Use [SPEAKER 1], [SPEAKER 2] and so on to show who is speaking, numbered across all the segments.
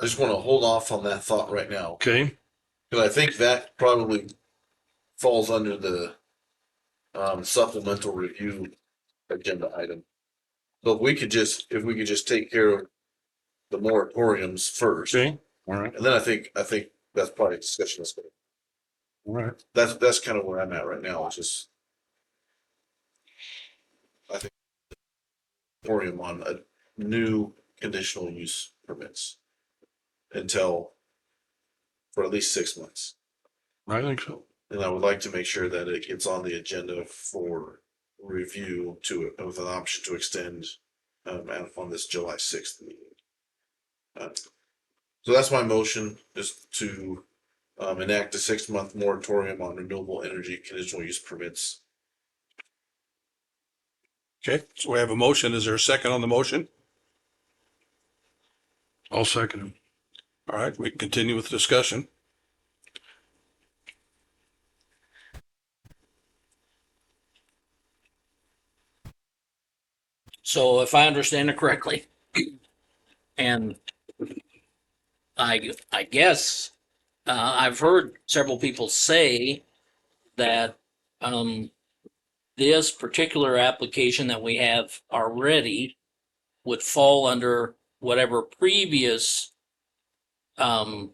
[SPEAKER 1] I just want to hold off on that thought right now.
[SPEAKER 2] Okay,
[SPEAKER 1] Cause I think that probably falls under the um supplemental review agenda item. But we could just, if we could just take care of the moratoriums first, and
[SPEAKER 2] okay, all right,
[SPEAKER 1] then I think, I think that's probably a discussion. that's gonna-
[SPEAKER 2] all right.
[SPEAKER 1] That's, that's kind of where I'm at right now, It's just. I think. Moratorium on a new conditional use permits. Until. For at least six months.
[SPEAKER 2] I think so.
[SPEAKER 1] And I would like to make sure that it gets on the agenda for review to, with an option to extend um, and on this July sixth meeting. Uh, So that's my motion, is to um, enact a six-month moratorium on renewable energy conditional use permits.
[SPEAKER 3] Okay, so we have a motion. Is there a second on the motion?
[SPEAKER 2] I'll second him.
[SPEAKER 3] All right, we can continue with the discussion.
[SPEAKER 4] So if I understand it correctly, and I, I guess, uh, I've heard several people say that, um, this particular application that we have already would fall under whatever previous, um,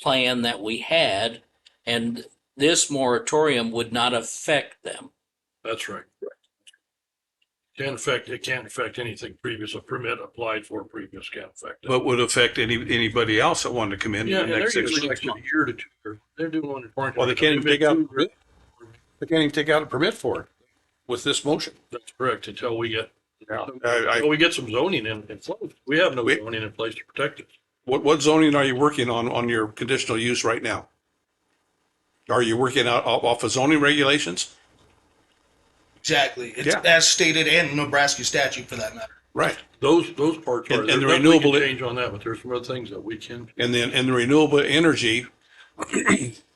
[SPEAKER 4] plan that we had, and this moratorium would not affect them.
[SPEAKER 2] That's right. Can't affect, it can't affect anything previous, a permit applied for previous can't affect. it.
[SPEAKER 3] But would affect any, anybody else that wanted to come in in
[SPEAKER 2] Yeah,
[SPEAKER 3] the
[SPEAKER 2] and they're
[SPEAKER 3] next six
[SPEAKER 2] usually
[SPEAKER 3] months.
[SPEAKER 2] like a year to two, years. they're doing one.
[SPEAKER 3] Well, they can't even take out, they can't even take out a permit for it with this motion.
[SPEAKER 2] That's correct, until we get,
[SPEAKER 3] I, I,
[SPEAKER 2] until we get some zoning in, in place. We have no
[SPEAKER 3] We-
[SPEAKER 2] zoning in place to protect it.
[SPEAKER 3] what, what zoning are you working on, on your conditional use right now? Are you working out off off of zoning regulations?
[SPEAKER 5] Exactly. It's
[SPEAKER 3] Yeah.
[SPEAKER 5] as stated and Nebraska statute for that matter.
[SPEAKER 3] Right.
[SPEAKER 2] Those, those parts are,
[SPEAKER 3] And- and
[SPEAKER 2] there's
[SPEAKER 3] the
[SPEAKER 2] nothing we can
[SPEAKER 3] renewable-
[SPEAKER 2] change on that, but there's some other things that we can.
[SPEAKER 3] And then, and the renewable energy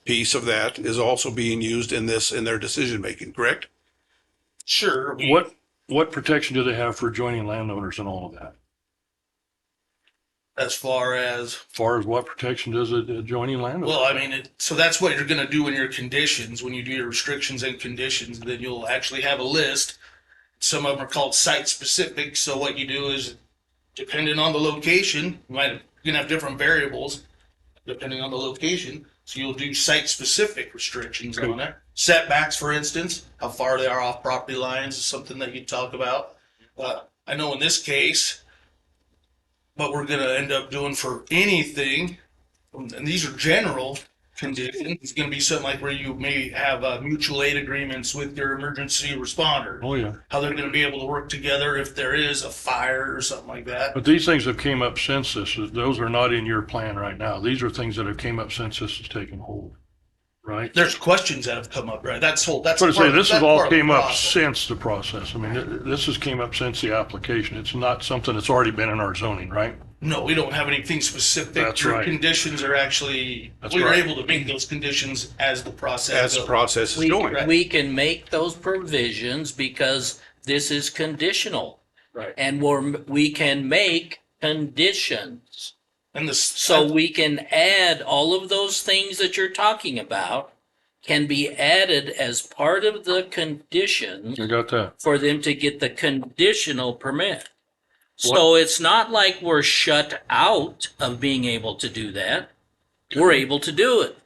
[SPEAKER 3] piece of that is also being used in this, in their decision making, correct?
[SPEAKER 5] Sure. we-
[SPEAKER 2] What, what protection do they have for joining landowners and all of that?
[SPEAKER 5] As far as
[SPEAKER 2] Far as what protection does a a joining landowner?
[SPEAKER 5] well, I mean, it, so that's what you're going to do in your conditions. When you do your restrictions and conditions, then you'll actually have a list. Some of them are called site specific. So what you do is, depending on the location, you might you're going to have different variables depending on the location. So you'll do site specific restrictions on it. Setbacks, for instance, how far they are off property lines is something that you talk about. Uh, I know in this case, what we're going to end up doing for anything, and these are general conditions, it's going to be something like where you may have uh, mutual aid agreements with your emergency responder,
[SPEAKER 2] Oh, yeah.
[SPEAKER 5] how they're going to be able to work together if there is a fire or something like that.
[SPEAKER 2] But these things have came up since this, is- those are not in your plan right now. These are things that have came up since this has taken hold, right?
[SPEAKER 5] There's questions that have come up, right? That's whole. That's
[SPEAKER 2] But I say,
[SPEAKER 5] part of-
[SPEAKER 2] this has
[SPEAKER 5] that's part
[SPEAKER 2] all
[SPEAKER 5] of the
[SPEAKER 2] came up
[SPEAKER 5] process.
[SPEAKER 2] since the process. I mean, th- this has came up since the application. It's not something that's already been in our zoning, right?
[SPEAKER 5] No, we don't have anything specific.
[SPEAKER 2] That's
[SPEAKER 5] Your
[SPEAKER 2] right.
[SPEAKER 5] Conditions are actually,
[SPEAKER 2] That's
[SPEAKER 5] we were
[SPEAKER 2] right.
[SPEAKER 5] able to make those conditions as the
[SPEAKER 3] As
[SPEAKER 5] process
[SPEAKER 3] the
[SPEAKER 5] goes.
[SPEAKER 3] process is
[SPEAKER 4] We,
[SPEAKER 3] going.
[SPEAKER 4] we can make those provisions because this is conditional.
[SPEAKER 2] Right.
[SPEAKER 4] And we're, we can make conditions.
[SPEAKER 5] And this,
[SPEAKER 4] So
[SPEAKER 5] so
[SPEAKER 4] we can add all of those things that you're talking about can be added as part of the condition
[SPEAKER 2] I got that.
[SPEAKER 4] for them to get the conditional permit. So it's not like we're shut out of being able to do that. We're able to do it.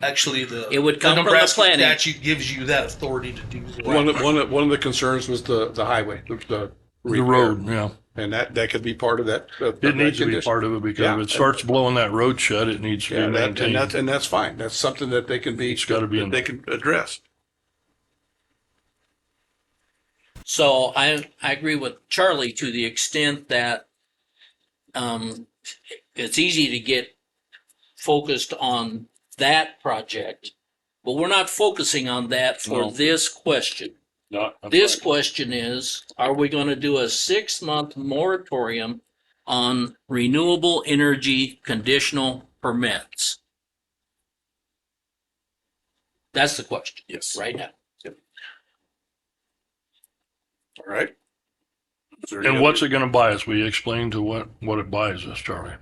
[SPEAKER 5] actually the.
[SPEAKER 4] It would come from the
[SPEAKER 5] Nebraska
[SPEAKER 4] planning.
[SPEAKER 5] Statute gives you that authority to do
[SPEAKER 3] One
[SPEAKER 5] that.
[SPEAKER 3] of, one of, one of the concerns was the, the highway, the, the.
[SPEAKER 2] The road, yeah.
[SPEAKER 3] And that, that could be part of that. of- of
[SPEAKER 2] It
[SPEAKER 3] that
[SPEAKER 2] needs to be
[SPEAKER 3] condition.
[SPEAKER 2] part of it because
[SPEAKER 3] Yeah.
[SPEAKER 2] if it starts blowing that road shut, it needs to
[SPEAKER 3] Yeah,
[SPEAKER 2] be
[SPEAKER 3] and that- and that's,
[SPEAKER 2] maintained.
[SPEAKER 3] and that's fine. That's something that they can be.
[SPEAKER 2] It's gotta be in
[SPEAKER 3] that They can address.
[SPEAKER 4] So I, I agree with Charlie to the extent that um, it's easy to get focused on that project, but we're not focusing on that
[SPEAKER 2] No.
[SPEAKER 4] for this question.
[SPEAKER 2] Not- that's
[SPEAKER 4] This
[SPEAKER 2] right.
[SPEAKER 4] question is, are we going to do a six-month moratorium on renewable energy conditional permits? That's the question
[SPEAKER 3] Yes.
[SPEAKER 4] right now.
[SPEAKER 3] All right. Is there any
[SPEAKER 2] And what's
[SPEAKER 3] other-
[SPEAKER 2] it gonna buy us? We explain to what, what it buys us, Charlie.